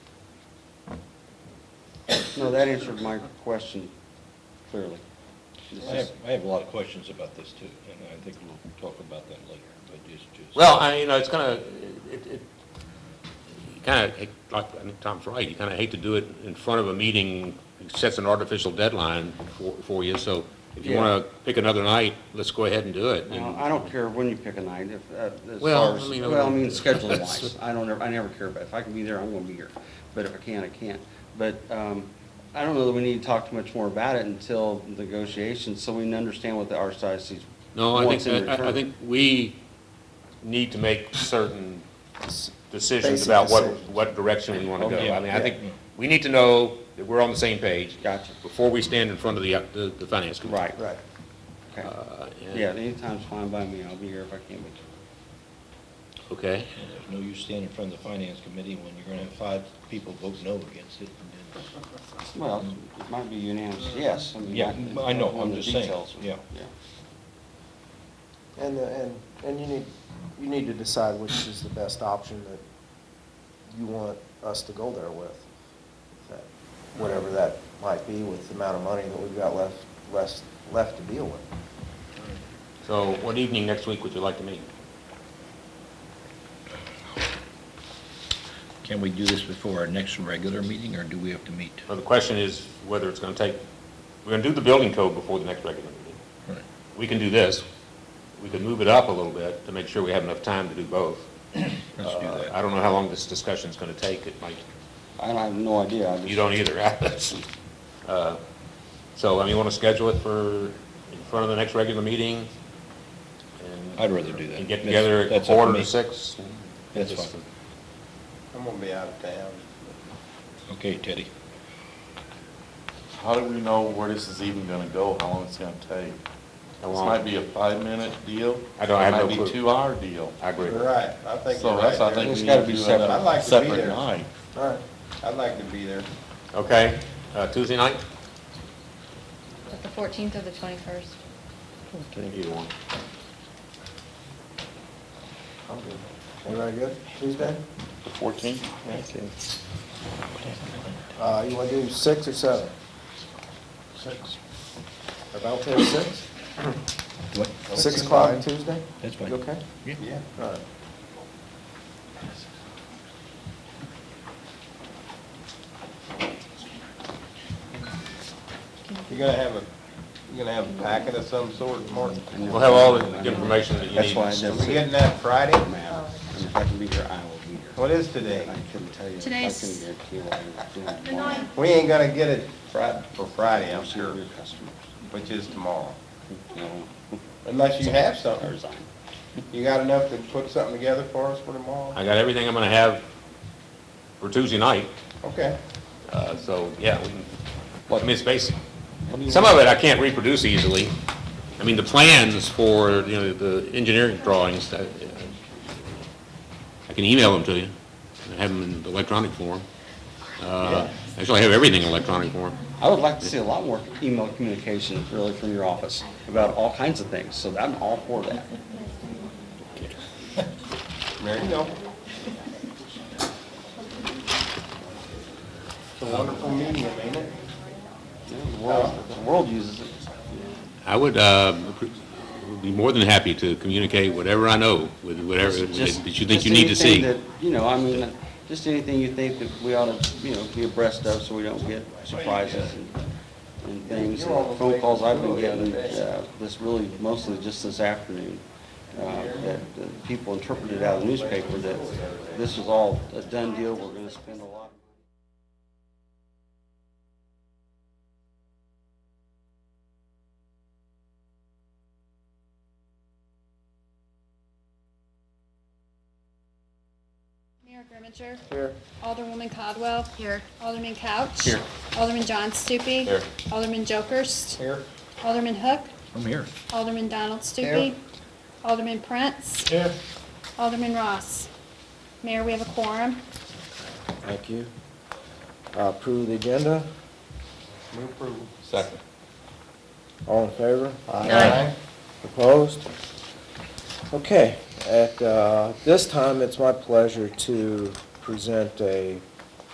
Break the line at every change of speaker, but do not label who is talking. No, that answered my question clearly. This
I
is-
have, I have a lot of questions about this too, and I think we'll talk about that later, but just, just.
Well, I, you know, it's kind of, it, it, you kind of, like, I think Tom's right, you kind of hate to do it in front of a meeting, it sets an artificial deadline for, for you, so if you
Yeah.
want to pick another night, let's go ahead and do it.
Well,
And-
I don't care when you pick a night, if, uh, as
Well,
far as,
I mean, I
well, I
would-
mean, scheduling wise, I don't ever, I never care about, it. if I can be there, I'm gonna be here, but if I can't, I can't. But, um, I don't know that we need to talk too much more about it until negotiations, so we can understand what the archdiocese
No, I
wants in
think, I, I
return.
think we need to make certain s- decisions
Basic
about what,
decisions.
what direction we want to go.
Okay.
I mean, I think
Yeah.
we need to know that we're on the same page
Gotcha.
before we stand in front of the, uh, the, the finance committee.
Right. Right. Okay,
Uh, and-
yeah, anytime's fine by me, I'll be here if I can be.
Okay.
And There's no use standing in front of the finance committee when you're gonna have five people vote no against it. and then-
Well, it might be unanimous, yes. I mean,
Yeah, I know,
on
I'm
the
just saying,
details.
yeah.
And, the- and, and you need, you need to decide which is the best option that you want us to go there with. That- Whatever that might be with the amount of money that we've got left, less, left to deal with.
So what evening next week would you like to meet?
Can we do this before our next regular meeting, or do we have to meet?
Well, the question is whether it's going to take, we're going to do the building code before the next regular meeting.
Right.
We can do this. We can move it up a little bit to make sure we have enough time to do both.
Let's do
Uh,
that.
I don't know how long this discussion's going to take. It might,
I don't- I have no idea. I just-
you don't either. Uh, So, I mean, you want to schedule it for in front of the next regular meeting? and-
I'd rather do that.
And get
That's-
together at
that's up to
quarter
me.
to six?
That's fine.
I'm gonna be out of town.
Okay, Teddy.
How do we know where this is even gonna go, how long it's gonna take?
How
This
long?
might be a five-minute deal.
I don't- I have no
It might
clue.
be a two-hour deal.
I agree.
Right, I think you're
So that's, I
right.
think
there.
It's
we
gotta
need
be
to do
separate.
another
I'd
like to be
separate
there.
night.
All right.
I'd like to be there.
Okay, Uh, Tuesday night?
The 14th or the 21st?
Either one.
I'm good. Everybody good? Tuesday?
The fourteenth?
Uh, you want to do six or seven?
Six.
About ten, six?
What?
Six o'clock Tuesday?
That's fine.
You okay?
Yeah.
All right.
You're gonna have a, you're gonna have a packet of some sort, Martin?
We'll have all the information that you
That's
need.
why I
Are
never
we
said
getting that Friday?
it mattered. And if I can be here, I will be here.
What is today?
I couldn't tell you. if I
Today's-
couldn't guarantee what I was doing tomorrow.
We ain't gonna get it Fri- for Friday, I'm
I'm sure
sure,
your customers,
which is tomorrow.
you know,
Unless you have something.
resign.
You got enough to put something together for us for tomorrow?
I got everything I'm gonna have for Tuesday night,
Okay.
uh, so, yeah, we can, I mean, it's basic.
What do you
Some
want?
of it I can't reproduce easily. I mean, the plans for, you know, the engineering drawings, I I can email them to you, I have them in electronic form. Uh, Actually, I have everything in electronic form.
I would like to see a lot more email communication really from your office about all kinds of things, so I'm all for that.
There you go. It's a wonderful medium, ain't it?
You know, The world- the world uses it.
I would uh, be more than happy to communicate whatever I know with whatever
Just-
that you think
just
you need to see.
anything that, You know, I mean, uh, just anything you think that we ought to, you know, be abreast of so we don't get surprises and, and things.
You're almost
Phone calls I've been
making a fool of
getting,
it.
uh, this really, mostly just this afternoon, uh, that uh, people interpreted out of the newspaper that this was all a done deal, we're gonna spend a lot.
Mayor Grimminger.
Here.
Alderwoman Codwell.
Here.
Alderman Couch.
Here.
Alderman John Stupi.
Here.
Alderman Jokers.
Here.
Alderman Hook.
I'm here.
Alderman Donald Stupi. Alderman Prince.
Here.
Alderman Ross. Mayor, we have a quorum.
Thank you. Uh, Approve the agenda?
Move approval.
Second.
All in favor?
Aye.
Opposed? Okay, at uh, this time, it's my pleasure to present a